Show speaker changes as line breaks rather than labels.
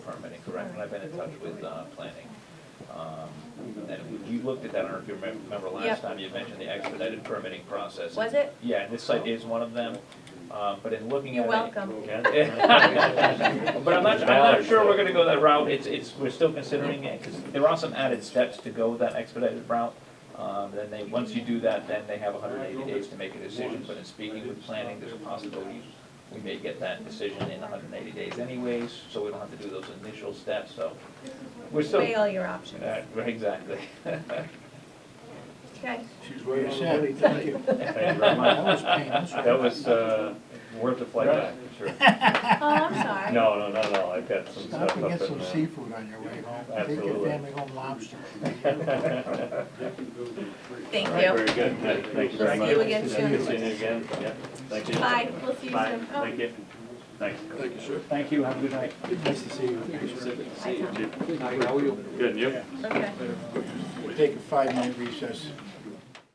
and I've been in touch with uh, planning. Um, And we looked at that, I don't know if you remem- remember last
Yep.
time, you mentioned the expedited permitting process.
Was it?
Yeah, and this site is one of them, Um, but in looking at
You're
it.
welcome.
But I'm not, I'm not sure we're gonna go that route, it's, it's, we're still considering it, because there are some added steps to go that expedited route. Um, then they, once you do that, then they have hundred and eighty days to make a decision, but in speaking with planning, there's a possibility we may get that decision in hundred and eighty days anyways, so we don't have to do those initial steps, so we're still,
Weigh all your options.
uh, right, exactly.
Okay.
She's
Very
right on the
sad.
money, thank you.
Thank you very
That
much.
was painless.
That was, uh,
Worth a flight back, sure.
Oh, I'm sorry.
no, no, no, no, I've got some
Stop
stuff
and
up
get
in
some
there.
seafood on your way home. Take your
Absolutely.
family home lobster.
Thank
All right,
you.
Very good, Thank- thank you very
See
much.
you again
See you
soon.
again, yeah, thank you.
Bye, we'll see you
Bye.
soon. Oh,
Thank you, thanks.
Thank you, sir.
Thank you, have a good night.
Nice to see you. Good,
Good, and you?
Okay.
We'll take a five-minute recess.